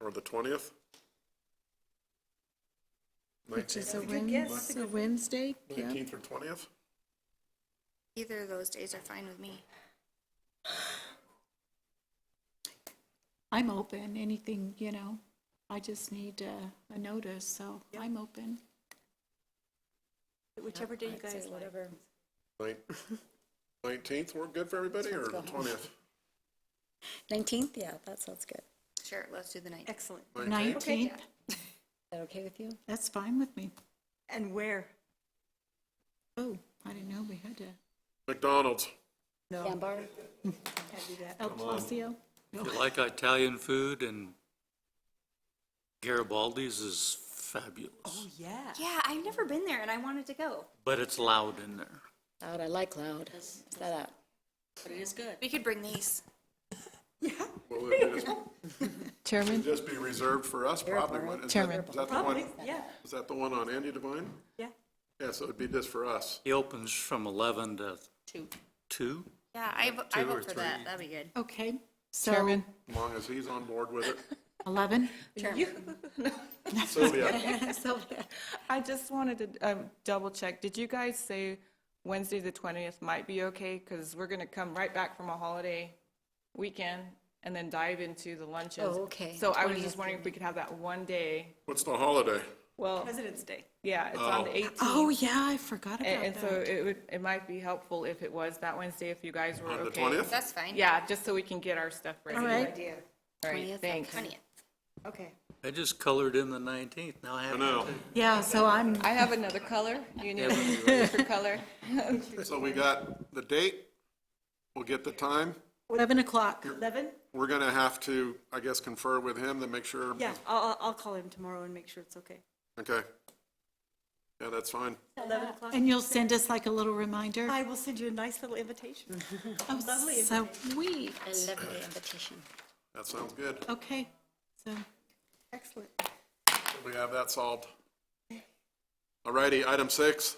or the twentieth? Which is a Good guess. Wednesday, a Wednesday, yeah. Nineteenth or twentieth? Either of those days are fine with me. I'm open, anything, you know, I just need a, a notice, so I'm open. Whichever day you guys, whatever. Nineteenth, we're good for everybody, or the twentieth? Nineteenth, yeah, that sounds good. Is Sure, let's do the night. Excellent. Nineteenth, that okay with you? that's fine with me. And where? Oh, I didn't know we had to, McDonald's. Sandbar? Can't do that. El Placio? If you like Italian food and Garibaldi's is fabulous, Oh, yeah. Yeah, I've never been there and I wanted to go. but it's loud in there. Loud, I like loud. Is that out? We could bring these. Will it just- Chairman, just be reserved for us, probably? wouldn't it? Is that- Chairman. Is that the Probably, one, yeah, is that the one on Andy Devine? yeah. Yeah, so it'd be just for us. He opens from 11 to Two. 2. Yeah, I, vo- I Two or vote for that. three. That'd be good. Okay, so Chairman, As long as he's on board with it. eleven? Sylvia, I just wanted to um, double check. Did you guys say Wednesday, the 20th might be okay? Because we're going to come right back from a holiday weekend and then dive into the lunches. Oh, okay, So I was 20th, just wondering if we could have that one day. what's the holiday? Well, President's Day. yeah, it's on the Oh. 18th. Oh, yeah, I forgot And about and so that. it would, it might be helpful if it was that Wednesday, if you guys were On the okay. twentieth? That's fine. Yeah, just so we can get our stuff ready. All right, Idea. All right, 20th, thanks. 20th. Okay. I just colored in the 19th, now I I have know. to. yeah, so I'm, I have another color. You need Yeah, we- a different color. So we got the date, we'll get the time. eleven o'clock. Eleven? We're gonna have to, I guess, confer with him to make sure. Yeah, I'll, I'll- I'll call him tomorrow and make sure it's okay. Okay. Yeah, that's fine. Eleven o'clock? And you'll send us like a little reminder? I will send you a nice little invitation. Oh, lovely So we, A lovely invitation. That sounds good. okay, so, Excellent. We have that solved. Alrighty, item six,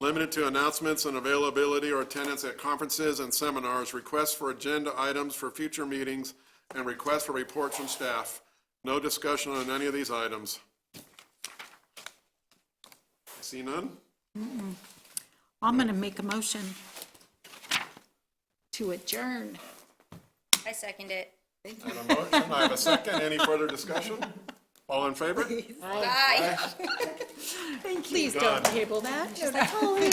limited to announcements and availability or attendance at conferences and seminars, requests for agenda items for future meetings, and requests for reports from staff. No discussion on any of these items. See none? I'm gonna make a motion to adjourn. I second it. I have a motion, I have a second. Any further discussion? All in favor? Bye. Please don't table that.